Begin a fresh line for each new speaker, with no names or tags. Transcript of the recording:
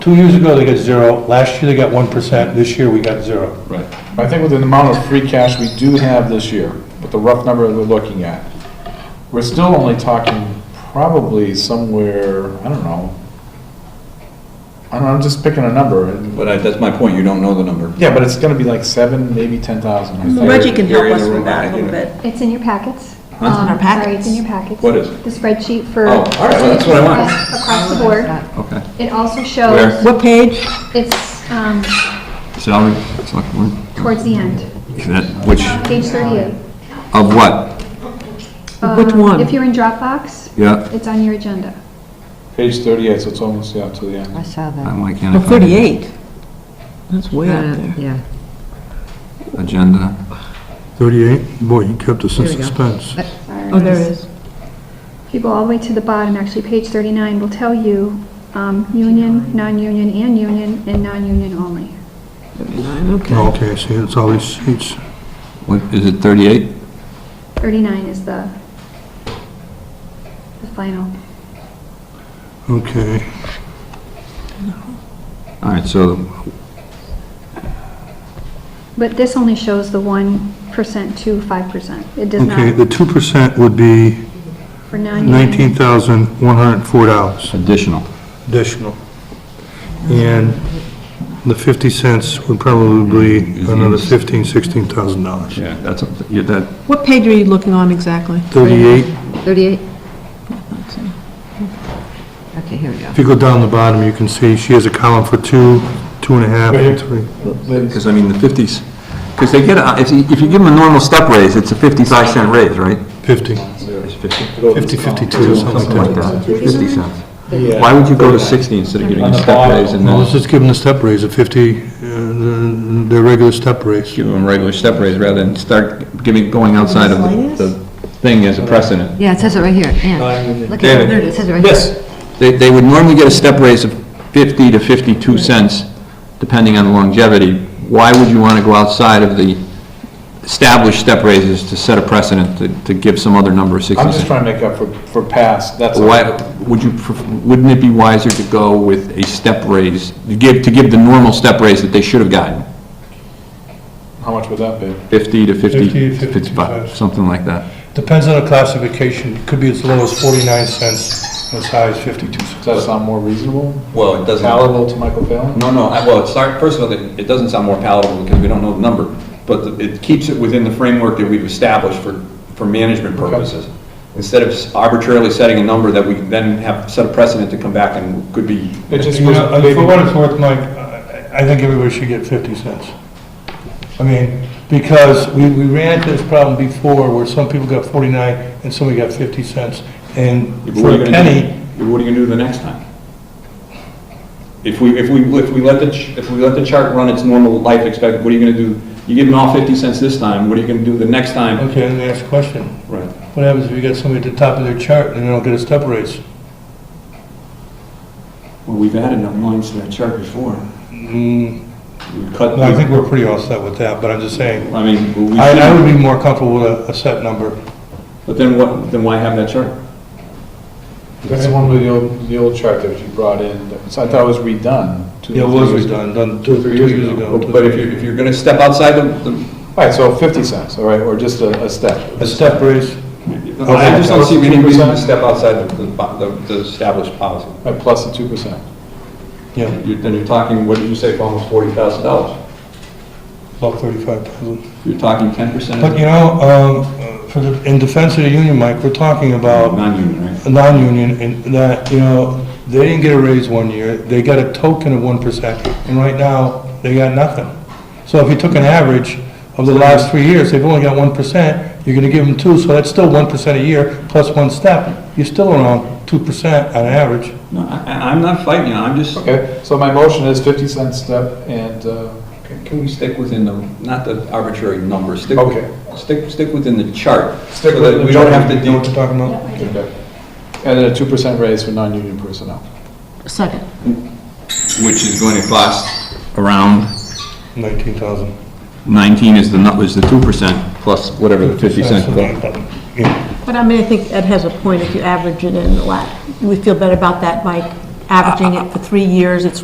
Two years ago, they got zero, last year they got one percent, this year we got zero.
Right.
I think with the amount of free cash we do have this year, with the rough number that we're looking at, we're still only talking probably somewhere, I don't know. I don't know, I'm just picking a number. and-
But I- that's my point, you don't know the number.
Yeah, but it's gonna be like seven, maybe ten thousand.
Reggie Mm-hmm. can
You're
help
in
us
the
with
room,
that
I
a little
hear it.
bit.
It's in your packets. It's
in
our
Sorry, it's
packets?
in your packets.
What is it?
The spreadsheet for.
Oh, all right, well, that's what I want.
across- Across the board.
Okay.
It also
Where?
shows,
What page?
it's um,
Salary, select board,
towards the end,
that- which,
page 38.
of what?
Oh, Which
Um,
one?
If you're in Dropbox,
Yeah,
it's on your agenda.
Page thirty-eight, so it's almost, yeah, to the end.
I saw that.
I'm like,
Oh,
yeah,
38. That's way up
Uh,
there.
Yeah,
agenda.
38, boy, you kept us in
There we go.
suspense.
Sorry.
Oh, there is.
If you go all the way to the bottom, actually, page 39 will tell you um, union, non-union, and union, and non-union only.
39, okay.
Okay, see, it's all these sheets.
What, is it 38?
39 is the, the final.
Okay,
All right, so,
But this only shows the 1% to 5%. It does
okay, the
not
2% would be
for non-union.
$19,104
additional.
additional. And the 50 cents would probably be another $15,000, $16,000.
Yeah, that's, yeah, that,
What page are you looking on exactly?
38,
38? Okay, here we go.
if you go down the bottom, you can see she has a column for two, two and a half,
Right here.
and three.
Ladies,
because I mean, the 50s, because they get, a- if you, if you give them a normal step raise, it's a 55 cent raise, right?
50,
It's 50,
50, 52, something
something
like
like that,
that.
50 cents.
Yeah.
Why would you go to 60 instead of getting a step raise and
Well, let's
then
just give them the step raise, a 50, uh, the the regular step raise.
give them a regular step raise rather than start giving, going outside of the- the thing as a precedent?
Yeah, it says it right here,
Oh,
and, look at it,
David.
there it is, it says it right here.
They, they would normally get a step raise of 50 to 52 cents, depending on longevity. Why would you want to go outside of the established step raises to set a precedent to, to give some other number of 60
I'm just
cents?
trying to make up for, for past, that's. all.
Why, would you, pref- wouldn't it be wiser to go with a step raise, to give, to give the normal step raise that they should have gotten?
How much would that be?
50 to 50,
50,
55, something like that.
Depends on the classification, it could be as low as forty-nine cents, and as high as fifty-two cents.
Does that sound more reasonable?
Well, it doesn't.
Palatable to Michael Palin?
No, no, I- well, it's, not- first of all, it it doesn't sound more palatable because we don't know the number, but the- it keeps it within the framework that we've established for, for management purposes. Instead of arbitrarily setting a number that we then have set a precedent to come back and could be,
It just
You
was
know,
maybe-
For what it's worth, Mike, I I think everybody should get 50 cents. I mean, because we, we ran into this problem before where some people got 49 and somebody got 50 cents. And
what
for
are you
a
gonna do?
penny,
what are you gonna do the next time? If we, if we, if we let the, ch- if we let the chart run its normal life expect, what are you gonna do? You give them all fifty cents this time, what are you gonna do the next time?
okay, let me ask a question.
Right.
What happens if you got somebody at the top of their chart and they don't get a step raise?
Well, we've added enough lines to that chart before.
Mm,
We've cut,
No, I think we're pretty all set with that, but I'm just saying,
I mean, we
I, I
should,
would be more comfortable with a, a set number.
but then what, then why have that chart?
That's the one with the old, the old chart that you brought in, that was- I thought it was redone. two-
Yeah, it was
three years ago.
redone, done two, three years ago.
But if you're, if you're gonna step outside the, the-
All right, so 50 cents, all right, or just a, a step.
A step raise,
I just don't see any reason to step outside the, the the established policy.
Right, Plus the 2%.
yeah,
You're- Then you're talking, what did you say, almost forty thousand dollars?
about 35,000.
You're talking ten percent
But
of
you know, um, for the, in defense of the union, Mike, we're talking about
non-union, right?
a non-union and that, you know, they didn't get a raise one year, they got a token of one percent, and right now, they got nothing. So if you took an average of the last three years, they've only got one percent, you're gonna give them two, so that's still one percent a year, plus one step, you're still around two percent on average.
No, I, I- I'm not fighting you, I'm just,
Okay, so my motion is 50 cent step and, uh,
can we stick within the, not the arbitrary number, stick,
Okay.
stick, stick within the chart.
Stick
so
with
that
the
We don't
chart.
have to
You know what
deal,
you're talking about?
okay. and then a 2% raise for non-union personnel.
Second.
which is going to cost around
Nineteen thousand.
19 is the, nu- is the 2% plus whatever the 50 cents.
But I mean, I think Ed has a point if you average it in a lot. Do we feel better about that, Mike? Averaging it for three years, it's